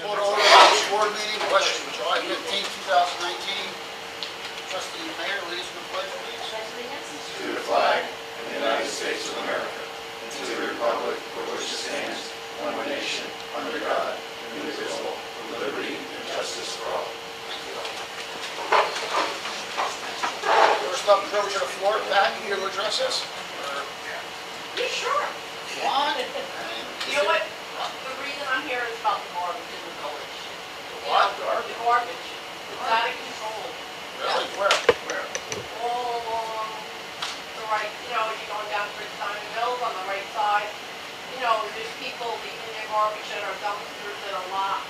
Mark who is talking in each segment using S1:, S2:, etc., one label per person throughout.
S1: Port Orange Village Board meeting, question, July 15, 2019. Trustee Mayor, leads in the pledge, please. First up, privilege of the floor, Pat, you will address us?
S2: You sure?
S1: What?
S2: You know what? The reason I'm here is about the garbage in the village.
S1: What?
S2: The garbage. It's out of control.
S1: Really? Where? Where?
S2: All along the right, you know, you're going down Prince Simon Mills on the right side. You know, there's people leaving their garbage at our dumpsters and a lot.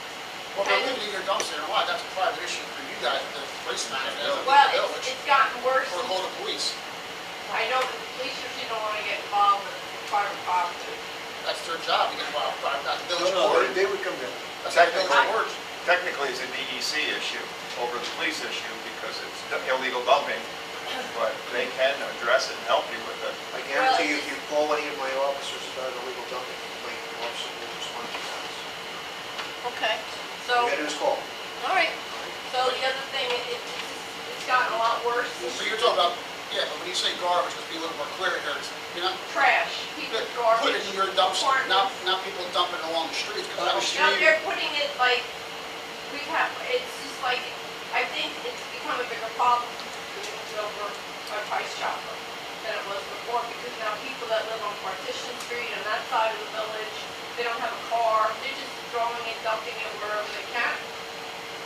S1: Well, they're leaving your dumpster, and why? That's a private issue for you guys, the police man, and the
S2: Well, it's,
S1: village,
S2: it's gotten worse.
S1: or call the police.
S2: I know that the police usually don't want to get involved with private property.
S1: That's their job, to get involved, but not the
S3: No,
S1: village
S3: no,
S1: board.
S3: they, they would come down.
S1: That's how the village works.
S4: Technically, it's a DEC issue over the police issue because it's illegal dumping, but they can address it and help you with it.
S3: I guarantee you, if you call any of my officers about illegal dumping, complaint, the officer will respond to that.
S2: Okay.
S3: You
S2: So.
S3: gotta just call.
S2: All right, so the other thing, it, it's, it's gotten a lot worse.
S1: So you're talking about, yeah, but when you say garbage, let's be a little more clear here, it's, you know,
S2: Trash,
S1: put
S2: people's
S1: it
S2: garbage.
S1: in your dumpster,
S2: corn.
S1: not, not people dumping along the streets, because that was
S2: Now
S1: street.
S2: they're putting it like, we have, it's just like, I think it's become a bigger problem because it's over by Price Chopper than it was before, because now people that live on Partition Street on that side of the village, they don't have a car, they're just throwing it, dumping it wherever they can.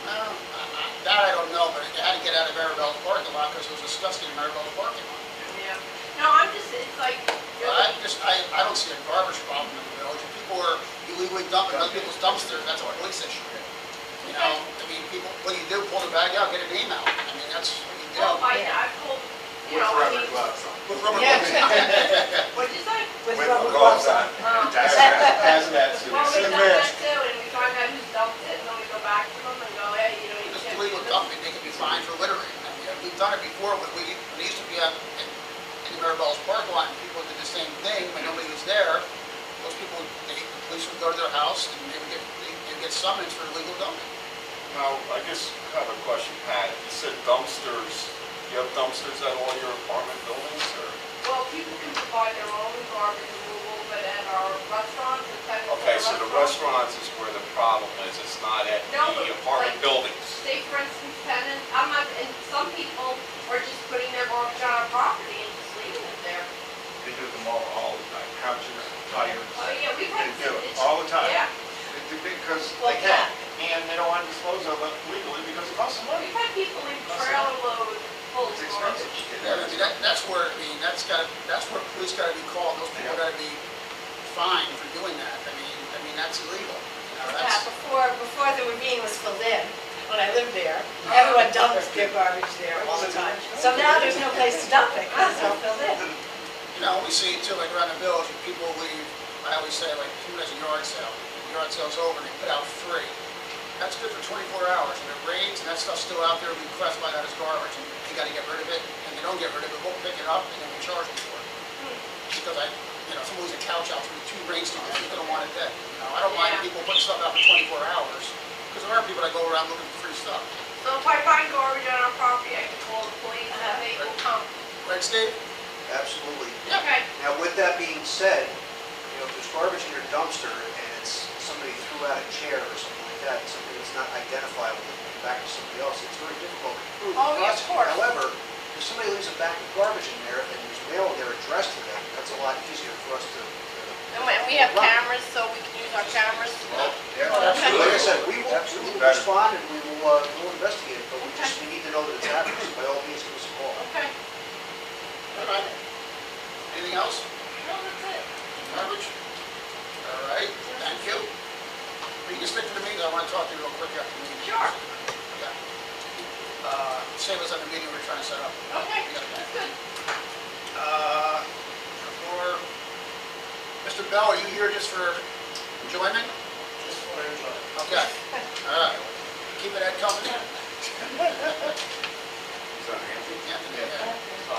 S1: No, I- I- That I don't know, but it had to get out of Maribel's parking lot, because it was disgusting in Maribel's parking lot.
S2: Yeah. No, I'm just, it's like,
S1: Well, I just, I, I don't see a garbage problem in the village. If people are illegally dumping other people's dumpsters, that's a police issue. You know, I mean, people, what do you do? Pull the bag out, get an email. I mean, that's what you do.
S2: well, I, I've told, you
S3: With
S2: know, I
S3: rubber
S2: mean.
S3: gloves on.
S1: With rubber
S5: Yeah.
S1: gloves. Well,
S2: What'd you say?
S5: With
S4: With
S5: rubber
S4: gloves
S5: gloves on.
S2: Um,
S4: That's hazmat
S2: Well, we
S4: suits.
S2: done that too, and we find out who dumped it, and then we go back to them and go, hey, you know, you
S1: It's
S2: can't do
S1: illegal
S2: this.
S1: dumping, they can be fined for littering. I mean, We've done it before, when we, when it used to be out in, in Maribel's park lot, and people did the same thing, when nobody was there. Those people, they, the police would go to their house, and they would get, they- they'd get summons for illegal dumping.
S4: Now, I just have a question, Pat. You said dumpsters, you have dumpsters at all your apartment buildings or?
S2: Well, people can provide their own garbage removal, but at our restaurants, it's kind of.
S4: Okay, so the restaurants is where the problem is. It's not at
S2: No, but
S4: the apartment
S2: like-
S4: buildings.
S2: Say, for instance, tenants, I'm not, and some people are just putting their garbage on our property and just leaving it there.
S4: They do them all, all the time, couches,
S2: Oh, yeah, we run.
S4: They do it
S2: it's-
S4: all the time.
S2: Yeah,
S4: They do- Because
S2: Well,
S4: they can, and they don't want to dispose of it legally because it costs them money.
S2: we've had people in trailer load full of
S4: It's
S2: garbage.
S4: expensive.
S1: Yeah, I mean, that, that's where, I mean, that's got, that's where police gotta be called, those people gotta be fined for doing that, I mean, I mean, that's illegal, you know,
S5: Yeah,
S1: that's,
S5: before, before the ravine was filled in, when I lived there, everyone dumped their garbage there all the time. So now there's no place to dump it, 'cause it's all filled in.
S1: you know, we see it too, like around the village, when people leave, I always say, like, who has a yard sale? The Yard sale's over, and they put out free, that's good for twenty-four hours, and it rains, and that stuff's still out there, we classify that as garbage, and they gotta get rid of it, and they don't get rid of it, we'll pick it up, and then we charge them for it. Just because I, you know, someone leaves a couch out for two rainstorms, people don't want it dead, you know, I don't mind
S2: Yeah.
S1: people putting stuff out for twenty-four hours, because there are people that go around looking for free stuff.
S2: So if I find garbage on our property, I can call the police and they will come.
S1: Right, Steve?
S3: Absolutely.
S2: Okay.
S3: Now, with that being said, you know, if there's garbage in your dumpster and it's, somebody threw out a chair or something like that, and something that's not identifiable, and back to somebody else, it's very difficult to prove.
S2: Oh, yeah, of
S3: Prosecute.
S2: course.
S3: However, if somebody leaves a bag of garbage in there and there's mail there addressed to them, that's a lot easier for us to. to-
S2: And we- we have cameras, so we can use our cameras.
S3: Like I said, we will, we will
S4: Better.
S3: respond and we will, uh, we'll investigate, it, but we just, we need to know that it's happening, so by all means, give us a call.
S2: Okay.
S1: All right. Anything else?
S2: No, that's it.
S1: Garbage? All right, thank you. We can stick to the meeting, I want to talk to you real quick after the meeting.
S2: Sure.
S1: Yeah. Uh, Save us on the meeting we we're trying to set up.
S2: Okay, that's good.
S1: Uh, For, Mr. Bell, are you here just for enjoyment?
S3: Just for everybody.
S1: Okay, all right. Keep it at company.
S4: Is that handy?
S1: Anthony, yeah.